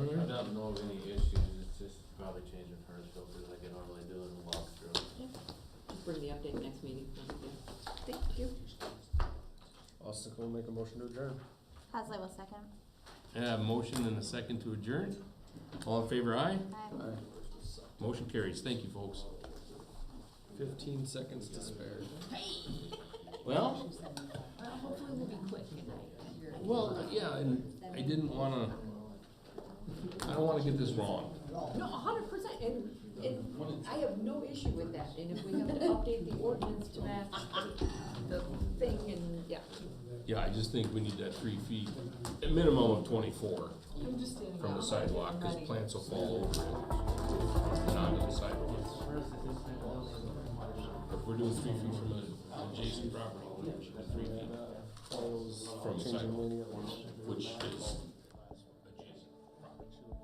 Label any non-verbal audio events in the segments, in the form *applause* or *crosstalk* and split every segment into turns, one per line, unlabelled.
Mm-hmm. of any issues, it's just probably changing first filters like I normally do in the walkthrough.
Just bring the update next meeting, thank
Thank
you.
you.
Austin Cole make a motion to adjourn.
Hasley will second.
And I have a motion and a second to adjourn. All in favor, aye?
Aye.
Motion carries. Thank you, folks.
Fifteen seconds to spare.
*laughs* Well,
Well, hopefully we'll be quick tonight.
well, yeah, and I didn't wanna, I don't wanna get this wrong.
No, a hundred percent, and, and I have no issue with that, and if we have to update the ordinance to match the thing and, yeah.
Yeah, I just think we need that three feet, a minimum of twenty-four from the sidewalk, cause plants will fall over it and onto the sidewalks. If we're doing three feet from an adjacent uh, property, that's three feet, From the
Changing
sidewalk.
meaning of-
which is adjacent property.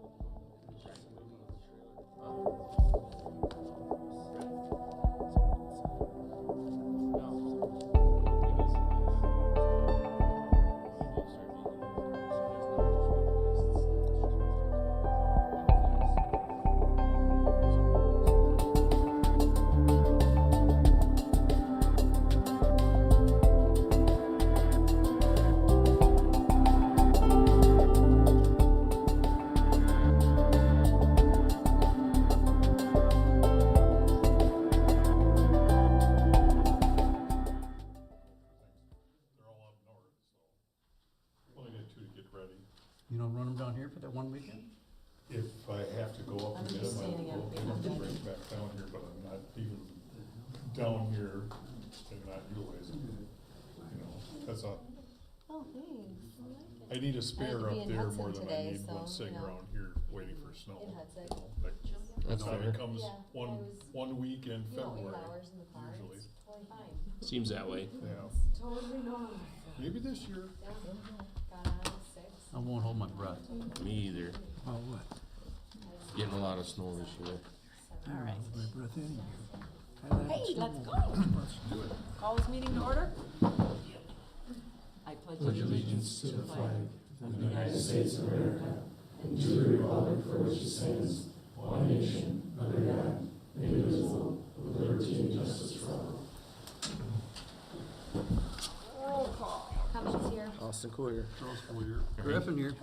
They're all up north, so. Only got two to get ready.
You don't run them down here for that one weekend?
If I have to go
I'm
up and get
just
them,
standing
I'll
up
go
behind you.
right back down here, but I'm not even down here and not utilizing it. You know, that's a,
Oh, thanks. I
I need a spare
be
up
in
there
Hudson
more than I
today,
need one
so,
sitting
you know.
around here waiting for snow.
In Hudson.
you know, like,
That's
now
fair.
It comes
Yeah, I
one,
was-
one week in
You don't leave
February,
hours in the car.
usually.
It's totally fine.
Seems that way.
yeah,
Totally normal.
maybe this year,
Yeah. Got on at six.
I won't hold my breath.
Me either.
Oh, what?
Getting a lot of snow this year.
All right. My breath in
Hey, let's go. Call this meeting to order. I pledge allegiance to the flag
Cummings here.
Austin Cole here.
Charles Boyer. Griffin here.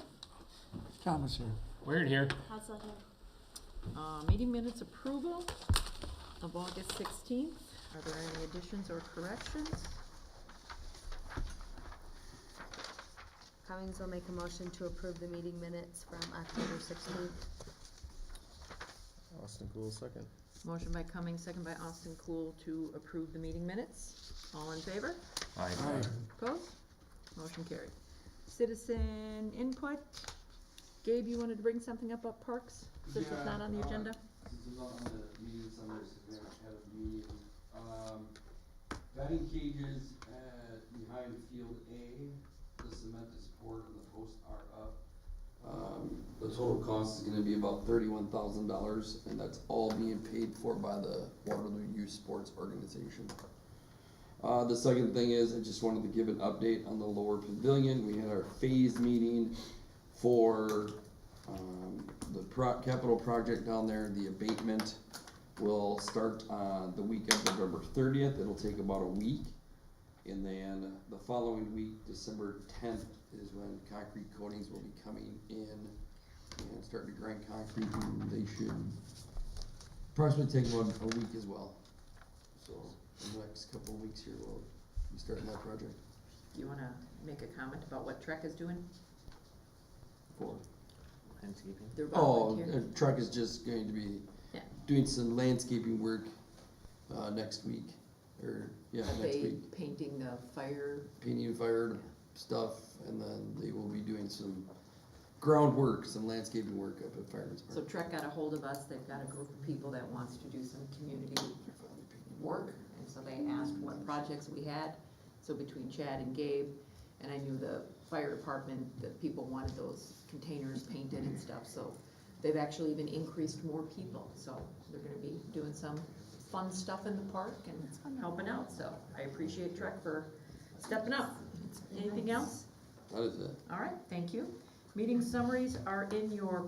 Thomas here.
Weird here.
Hasley here.
Uh, meeting minutes approval of August sixteenth. Are there any additions or corrections?
Cummings will make a motion to approve the meeting minutes from October sixteenth.
Austin Cole second.
Motion by Cummings, second by Austin Cool to approve the meeting minutes. All in favor? Opposed? Motion carried. Citizen input. Gabe, you wanted to bring something up about parks? This is not on the
Yeah, uh,
agenda?
Since I'm not on the meeting summary, since we haven't had a meeting, um, batting cages at, behind field A, the cement is poured and the posts are up. Um, the total cost is gonna be about thirty-one thousand dollars, and that's all being paid for by the Waterloo Youth Sports Organization. Uh, the second thing is, I just wanted to give an update on the lower pavilion, we had our phase meeting for, um, the pro- capital project down there, the abatement will start, uh, the week of November thirtieth, it'll take about a week. And then the following week, December tenth, is when concrete coatings will be coming in and starting to grind concrete, they should approximately take about a week as well. So, in the next couple of weeks here, we'll be starting that project
Do you wanna make a comment about what Trek is doing?
for.
They're
Oh,
volunteer.
and truck is just going to be
Yeah.
doing some landscaping work, uh, next week, or, yeah, next
They
week.
painting the fire,
Painting and fire
Yeah.
stuff, and then they will be doing some groundwork, some landscaping work up at Fireman's
so
Park.
Trek got a hold of us, they've got a group of people that wants to do some community work, and so they asked what projects we had. So between Chad and Gabe, and I knew the fire department, that people wanted those containers painted and stuff, so they've actually even increased more people, so they're gonna be doing some fun stuff in the park and helping out, so I appreciate Trek for stepping up. Anything else?
That is it.
All right, thank you. Meeting summaries are in your